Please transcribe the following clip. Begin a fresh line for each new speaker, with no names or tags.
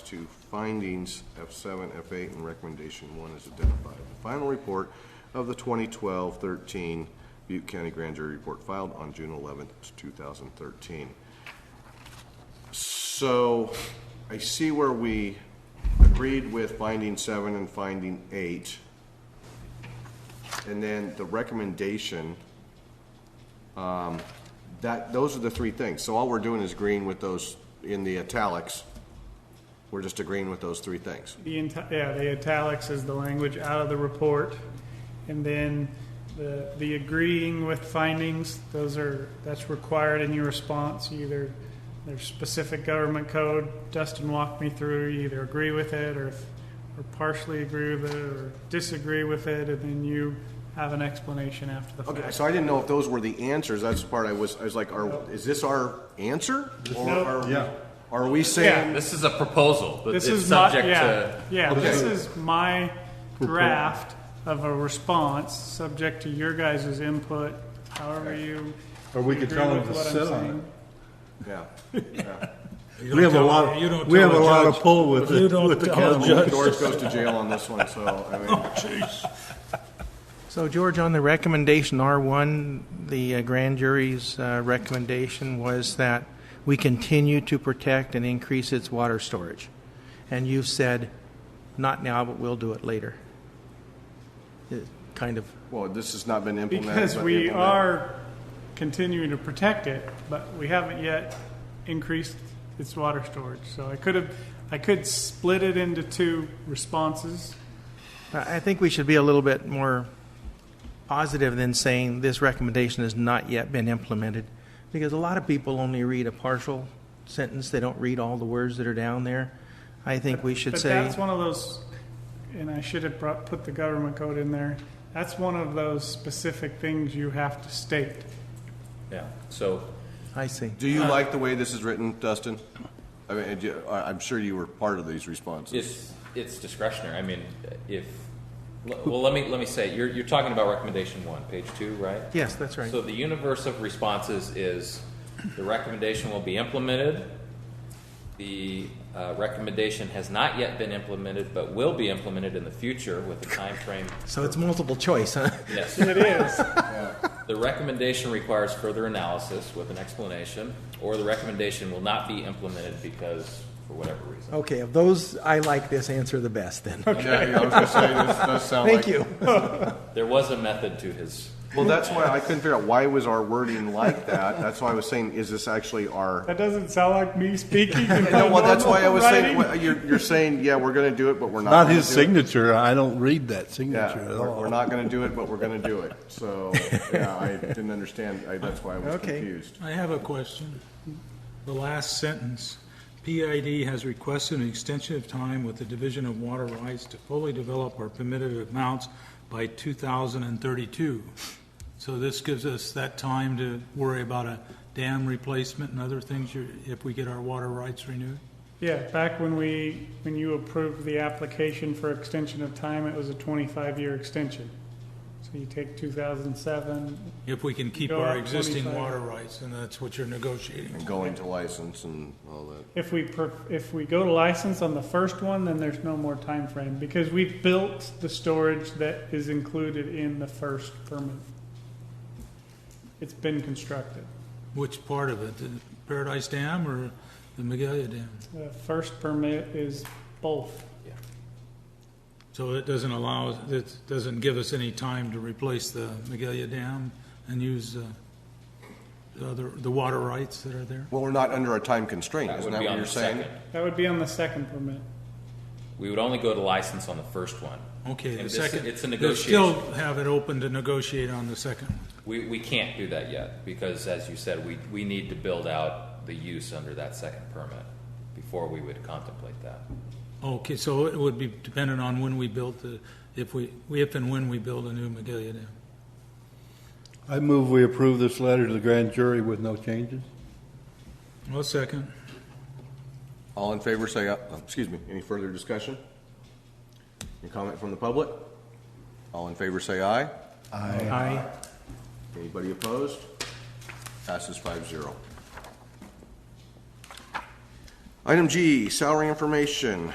to findings, F7, F8, and recommendation one is identified. The final report of the 2012-13 Butte County Grand Jury Report filed on June 11th, 2013. So I see where we agreed with finding seven and finding eight. And then the recommendation, um, that, those are the three things. So all we're doing is agreeing with those in the italics. We're just agreeing with those three things.
The, enti- yeah, the italics is the language out of the report. And then the, the agreeing with findings, those are, that's required in your response. Either there's specific government code, Dustin walked me through, you either agree with it or, if- or partially agree with it or disagree with it, and then you have an explanation after the fact.
Okay, so I didn't know if those were the answers. That's the part I was, I was like, are, is this our answer? Or
No.
are,
Yeah.
are we saying,
This is a proposal, but
This
it's
is my,
subject
yeah,
to,
yeah, this
Okay.
is my draft of a response, subject to your guys' input, however you.
Or we could
agree
tell them
with
to
what I'm
sit on
saying.
yeah.
You
We
don't
have a
tell-
lot,
you don't
we
tell
have a
a
lot of
judge-
pull with
you
the,
don't
with the
tell a
county.
judge-
George goes to jail on this one, so, I mean.
So George, on the recommendation R1, the uh, grand jury's uh, recommendation was that we continue to protect and increase its water storage. And you've said, not now, but we'll do it later. It Kind of,
Well, this has not been implemented.
Because
but
we
implemented.
are continuing to protect it, but we haven't yet increased its water storage, so I could have, I could split it into two responses.
I I think we should be a little bit more positive than saying this recommendation has not yet been implemented. Because a lot of people only read a partial sentence, they don't read all the words that are down there. I think we should
But
say.
that's one of those, and I should have brought, put the government code in there. That's one of those specific things you have to state.
yeah, so,
I see.
Do you like the way this is written, Dustin? I mean, do you- I- I'm sure you were part of these responses.
it's, it's discretionary, I mean, if, well, let me, let me say, you're, you're talking about recommendation one, page two, right?
Yes, that's right.
So the universe of responses is the recommendation will be implemented. The uh, recommendation has not yet been implemented, but will be implemented in the future with a timeframe.
So it's multiple choice, huh?
Yes.
It is.
The recommendation requires further analysis with an explanation, or the recommendation will not be implemented because, for whatever reason.
Okay, of those, I like this answer the best then.
Yeah, yeah, I was gonna say, this does sound
Thank
like.
you.
There was a method to his,
Well, that's why I couldn't figure out, why was our wording like that? That's why I was saying, is this actually our?
That doesn't sound like me speaking. in my
No, well, that's why I
normal
was saying,
writing.
well, you're, you're saying, yeah, we're gonna do it, but we're not.
Not
gonna
his
do it.
signature, I don't read that
Yeah,
signature at
we're,
all.
we're not gonna do it, but we're gonna do it. So, yeah, I didn't understand, I, that's why I was
Okay.
confused.
I have a question. The last sentence, PID has requested an extension of time with the Division of Water Rights to fully develop our permitted amounts by 2032. So this gives us that time to worry about a dam replacement and other things you- if we get our water rights renewed?
Yeah, back when we, when you approved the application for extension of time, it was a twenty-five year extension. So you take two thousand seven,
If we can keep
Go
our
up
existing
25.
water rights, and that's what you're negotiating.
And going to license and all that.
If we, per- if we go to license on the first one, then there's no more time frame because we've built the storage that is included in the first permit. It's been constructed,
Which part of it, the Paradise Dam or the Magalia Dam?
the first permit is both.
So it doesn't allow, it doesn't give us any time to replace the Magalia Dam and use uh, the other, the water rights that are there?
Well, we're not under a time constraint,
that
isn't
would
that
be
what
on
you're
the
saying?
second.
That would be on the second permit.
We would only go to license on the first one.
Okay,
And
the
this-
second.
It's a
they
negotiation.
Still have it open to negotiate on the second one.
We, we can't do that yet, because as you said, we, we need to build out the use under that second permit before we would contemplate that.
Okay, so it would be dependent on when we build the, if we, if and when we build a new Magalia Dam.
I move we approve this letter to the grand jury with no changes.
Well, second.
All in favor, say, aye. Uh, excuse me, any further discussion? Any comment from the public? All in favor, say aye.
Aye.
Anybody opposed? Passes five zero. Item G, salary information.